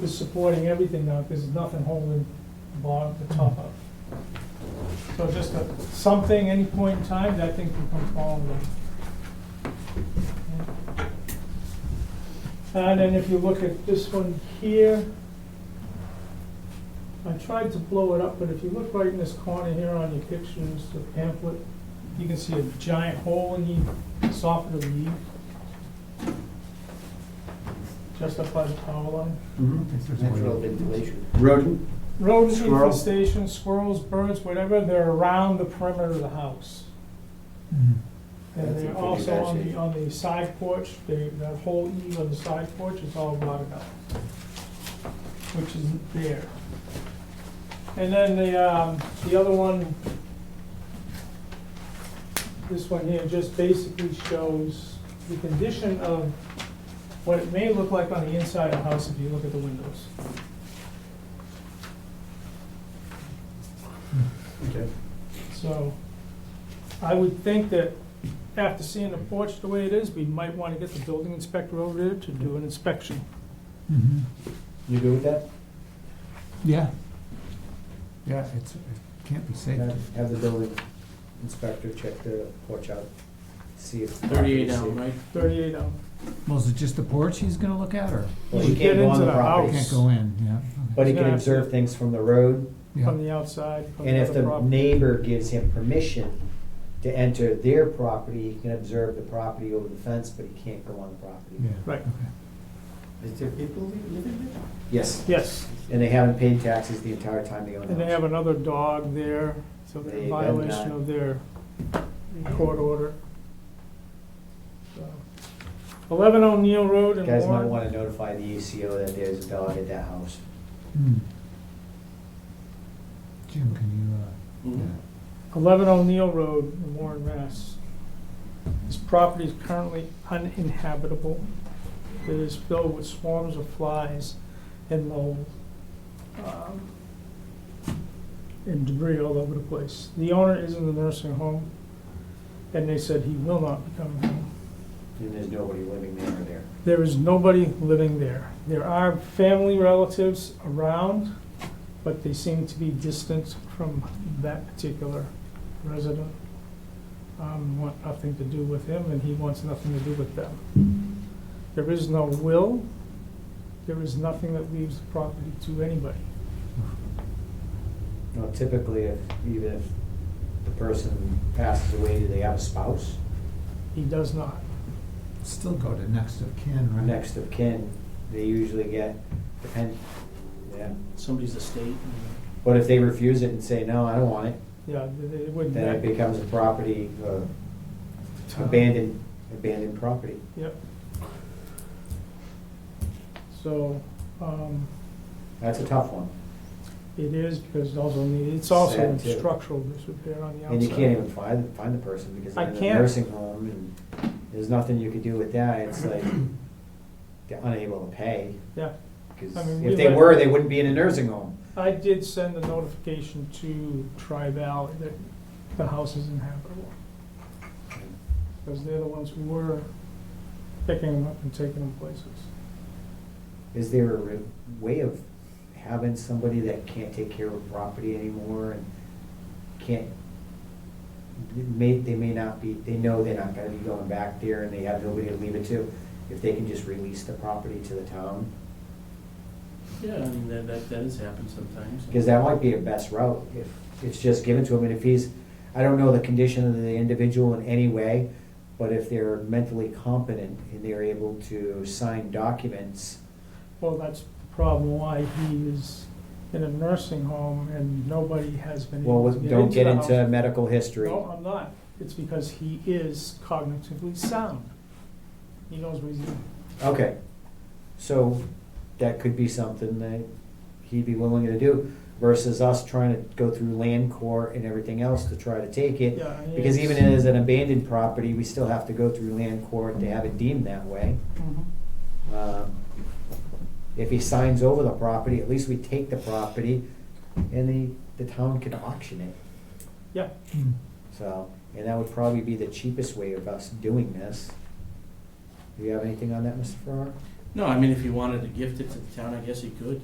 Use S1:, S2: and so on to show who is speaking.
S1: is supporting everything now, because there's nothing holding the bottom, the top up. So just a, something, any point in time, that thing can come falling down. And then if you look at this one here, I tried to blow it up, but if you look right in this corner here on your pictures, the pamphlet, you can see a giant hole in the soffit of the eave. Just up by the power line.
S2: Natural ventilation.
S3: Rodent,
S1: Rodent
S3: Squirrel.
S1: infestation, squirrels, birds, whatever, they're around the perimeter of the house. And
S2: That's a
S1: they're
S2: pretty
S1: also
S2: bad
S1: on the,
S2: shape.
S1: on the side porch, they, that whole eve on the side porch is all rotted out, which isn't there. And then the, um, the other one, this one here just basically shows the condition of what it may look like on the inside of the house if you look at the windows.
S3: okay.
S1: So I would think that after seeing the porch the way it is, we might want to get the building inspector over there to do an inspection.
S2: You good with that?
S4: Yeah. Yeah, it's, it can't be safe.
S2: Have have the building inspector check the porch out, see if.
S5: Thirty-eight down, right?
S1: Thirty-eight hour.
S4: Well, is it just the porch he's gonna look at, or
S2: Well,
S1: You
S2: he can't
S1: get
S2: go on
S1: into
S2: the
S1: the
S2: property,
S4: can't
S1: house.
S4: go in, yeah?
S2: but he
S1: He's
S2: can
S1: gonna have to-
S2: observe things from the road,
S1: from
S4: Yeah,
S1: the outside. from
S2: and if
S1: other
S2: the
S1: property.
S2: neighbor gives him permission to enter their property, he can observe the property over the fence, but he can't go on the
S4: yeah.
S2: property.
S1: Right.
S4: okay.
S2: Is there people living there? Yes,
S1: Yes,
S2: and they haven't paid taxes the entire time they own the
S1: and they
S2: house.
S1: have another dog there, so they're in
S2: They have
S1: violation
S2: not-
S1: of their court order. Eleven O'Neill Road in
S2: Guys might
S1: Warren.
S2: wanna notify the ACO that there's a dog at that house.
S4: Hmm. Jim, can you, uh,
S5: Mm-hmm.
S4: yeah.
S1: 11 O'Neill Road in Warren, Mass. This property is currently uninhabitable. It is filled with swarms of flies and mold um, and debris all over the place. The owner is in the nursing home, and they said he will not be coming home.
S2: And there's nobody living there or there.
S1: There is nobody living there. There are family relatives around, but they seem to be distant from that particular resident. Um, want nothing to do with him, and he wants nothing to do with them. There is no will. There is nothing that leaves the property to anybody.
S2: You know, typically, if, even if the person passes away, do they have a spouse?
S1: He does not.
S4: still go to next of kin, right?
S2: Next of kin, they usually get, depend, yeah.
S5: Somebody's estate.
S2: But if they refuse it and say, no, I don't want it,
S1: Yeah, th- th- it wouldn't.
S2: then it becomes a property, uh, abandoned, abandoned property.
S1: Yep. So, um,
S2: That's a tough one.
S1: It is, because it's also, need- it's also
S2: Sad,
S1: in
S2: too.
S1: structural disrepair on the outside.
S2: And you can't even find, find the person because
S1: I
S2: they're in a
S1: can't.
S2: nursing home and there's nothing you could do with that. It's like, they're unable to pay.
S1: Yeah,
S2: Because
S1: I mean, we
S2: if they
S1: let-
S2: were, they wouldn't be in a nursing home.
S1: I did send a notification to Tri-Val that the house is inhabitable, because they're the ones who were picking them up and taking them places.
S2: Is there a re- way of having somebody that can't take care of property anymore and can't, they may, they may not be, they know they're not gonna be going back there and they have nobody to leave it to? If they can just release the property to the town?
S5: Yeah, I mean, that, that, that has happened sometimes.
S2: Because that might be a best route, if it's just given to him, and if he's, I don't know the condition of the individual in any way, but if they're mentally competent and they're able to sign documents,
S1: Well, that's the problem, why he is in a nursing home and nobody has been
S2: well,
S1: able to
S2: with-
S1: get
S2: don't
S1: into
S2: get
S1: the house.
S2: into medical history.
S1: No, I'm not, it's because he is cognitively sound, he knows what he's doing.
S2: Okay, so that could be something that he'd be willing to do versus us trying to go through land court and everything else to try to take it.
S1: Yeah, he
S2: Because
S1: is-
S2: even as an abandoned property, we still have to go through land court to have it deemed that way.
S1: Mhm.
S2: Um, If he signs over the property, at least we take the property and the, the town can auction it.
S1: Yeah,
S4: Hmm.
S2: So, and that would probably be the cheapest way of us doing this. Do you have anything on that, Mr. Farrar?
S5: No, I mean, if he wanted to gift it to the town, I guess he could.